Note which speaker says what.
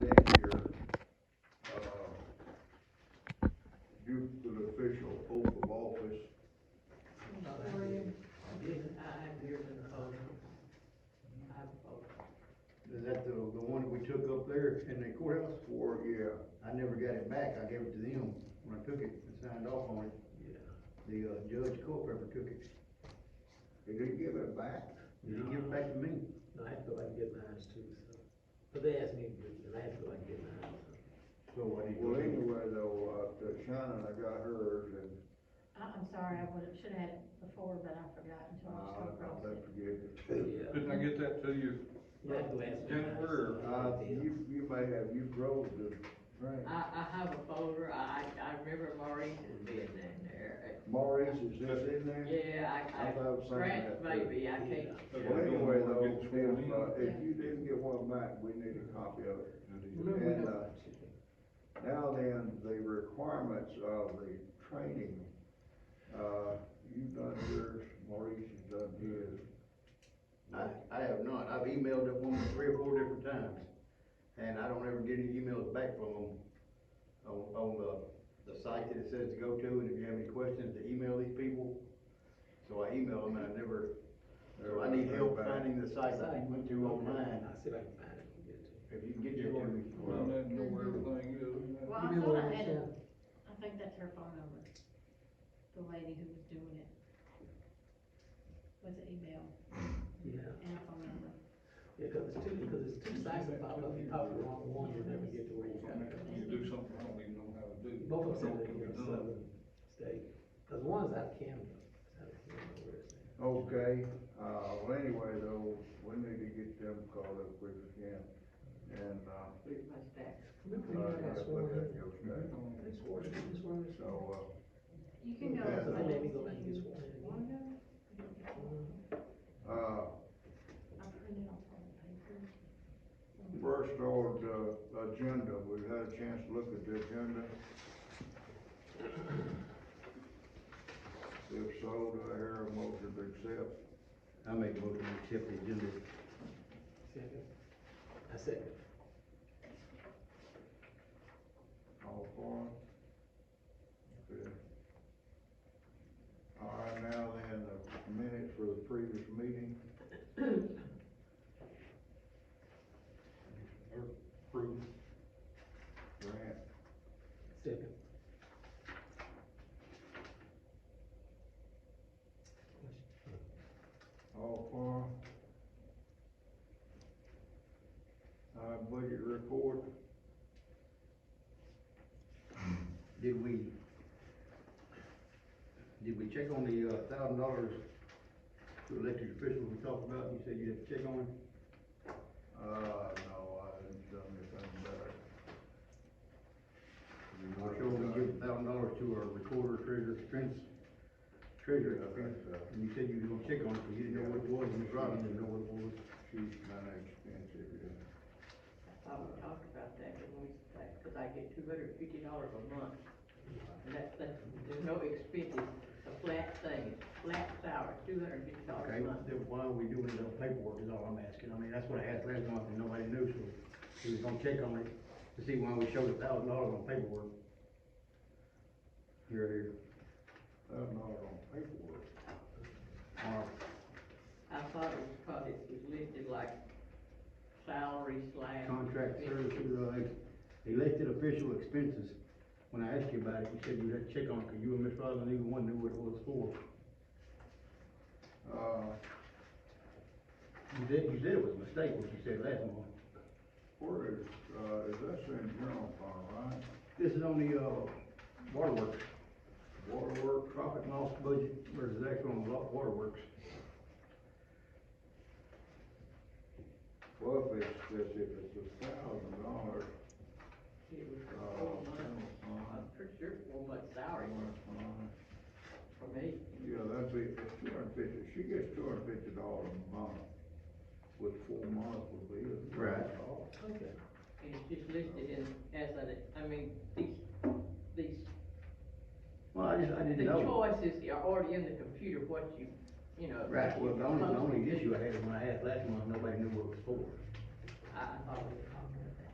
Speaker 1: uh,
Speaker 2: in the courthouse for a year, I never got it back, I gave it to them when I took it and signed off on it,
Speaker 3: Yeah.
Speaker 2: the, uh, Judge Culpepper took it.
Speaker 1: Did he give it back?
Speaker 2: He didn't give it back to me,
Speaker 3: No, I have to go back and get mine too, so, but they asked me, to do it, and I have to go back and get mine, so.
Speaker 2: so I didn't.
Speaker 1: Well, anyway, though, uh, Shannon, I got hers and,
Speaker 4: I, I'm sorry, I would've, should've had it before, but I forgot until I
Speaker 1: uh,
Speaker 4: was so
Speaker 1: I'll
Speaker 4: cross.
Speaker 1: let you get it.
Speaker 3: Yeah.
Speaker 5: Didn't I get that to you?
Speaker 3: You have to ask me.
Speaker 5: Jennifer,
Speaker 1: Uh, you, you may have, you drove the train.
Speaker 6: I, I have a folder, I, I remember Maurice's being in there.
Speaker 1: Maurice, is this in there?
Speaker 6: Yeah, I,
Speaker 1: I thought it was
Speaker 6: I,
Speaker 1: something
Speaker 6: Grant,
Speaker 1: that-
Speaker 6: maybe, I can't.
Speaker 1: Well, anyway, though,
Speaker 5: Get sworn in.
Speaker 1: if, uh, if you didn't get one back, we need a copy of it. And, uh, now then, the requirements of the training, uh, you've done yours, Maurice has done his.
Speaker 2: I, I have not, I've emailed that woman three or four different times, and I don't ever get any emails back from them on, on the, the site that it says to go to, and if you have any questions, to email these people. So I email them, and I never, so I need help finding the site that you went to online,
Speaker 3: I'll see if I can find it and get it to you.
Speaker 2: if you can get your one.
Speaker 5: Well, I didn't know where everything is.
Speaker 4: Well, I thought I had a, I think that's her phone number, the lady who was doing it. With the email
Speaker 3: Yeah,
Speaker 4: and a phone number.
Speaker 3: yeah, cause it's two, cause it's two sites that pop up, you pop the wrong one, you'll never get to where you gotta go.
Speaker 5: You do something I don't even know how to do.
Speaker 3: Both of them
Speaker 5: I know
Speaker 3: are
Speaker 5: it can be
Speaker 3: in
Speaker 5: done.
Speaker 3: southern state, cause one's out of Canada, it's out of Canada, where is it?
Speaker 1: Okay, uh, well, anyway, though, we need to get them called up quick as we can, and, uh,
Speaker 6: Through my stack.
Speaker 3: Remember
Speaker 1: I
Speaker 3: when I
Speaker 1: gotta put
Speaker 3: got sworn
Speaker 1: that
Speaker 3: in?
Speaker 1: goes back.
Speaker 3: They swore, they swore me.
Speaker 1: So, uh,
Speaker 4: You can go.
Speaker 1: Yeah,
Speaker 3: So they made me go back and get sworn in.
Speaker 4: Wanna go?
Speaker 3: Mm-hmm.
Speaker 1: Uh,
Speaker 4: I printed off all the papers.
Speaker 1: first on the agenda, we've had a chance to look at the agenda. If so, do I hear a motion to accept?
Speaker 2: I make a motion to accept the agenda.
Speaker 3: Second. I second.
Speaker 1: All for it? Okay. All right, now then, the minutes for the previous meeting.
Speaker 5: Proof.
Speaker 1: Grant,
Speaker 3: Second.
Speaker 1: all for it? Uh, budget report,
Speaker 2: Did we, did we check on the uh, thousand dollars to elected officials we talked about, you said you had to check on it?
Speaker 1: uh, no, I didn't done anything better.
Speaker 2: We're sure we give a thousand dollars to our recorder, treasurer, Spence, treasurer,
Speaker 1: I think so.
Speaker 2: and you said you were gonna check on it, but you didn't know what it was, and Miss Robin didn't know what it was.
Speaker 1: She's not expensive, yeah.
Speaker 6: I would talk about that when we, that- cause I get two hundred and fifty dollars a month. And that's, that's, there's no expenses, it's a flat thing, flat salary, two hundred and fifty dollars
Speaker 2: Okay,
Speaker 6: a month.
Speaker 2: then why are we doing it on paperwork is all I'm asking, I mean, that's what I asked last month and nobody knew, so we was gonna check on it to see why we showed a thousand dollars on paperwork. Here, here,
Speaker 1: Thousand dollars on paperwork.
Speaker 2: Mark,
Speaker 6: I thought it was, cause it was listed like salary slash.
Speaker 2: contract
Speaker 6: expenses.
Speaker 2: services, uh, elected official expenses. When I asked you about it, you said you had to check on it, cause you and Miss Robin, neither one knew what it was for.
Speaker 1: Uh,
Speaker 2: You did, you said it was a mistake, what you said last month.
Speaker 1: where is, uh, is that in general fund, right?
Speaker 2: This is on the, uh, waterworks,
Speaker 1: Waterworks,
Speaker 2: profit and loss budget, versus the actual on the wa- waterworks.
Speaker 1: well, if it's, if it's a thousand dollars,
Speaker 6: It was
Speaker 1: uh,
Speaker 6: for four months,
Speaker 1: general fund,
Speaker 6: I'm pretty sure four months salary
Speaker 1: general fund,
Speaker 6: for me.
Speaker 1: yeah, that's it, it's two hundred fifty, she gets two hundred fifty dollars a month, which four months would be. a thousand
Speaker 2: Right.
Speaker 1: dollars.
Speaker 3: Okay.
Speaker 6: And it's just listed in, as an, I mean, these, these,
Speaker 2: Well, I just, I
Speaker 6: the
Speaker 2: didn't know.
Speaker 6: choices are already in the computer, what you, you know.
Speaker 2: Right, well, the only, the only issue I had when I asked last month, nobody knew what it was for.
Speaker 6: I, I thought,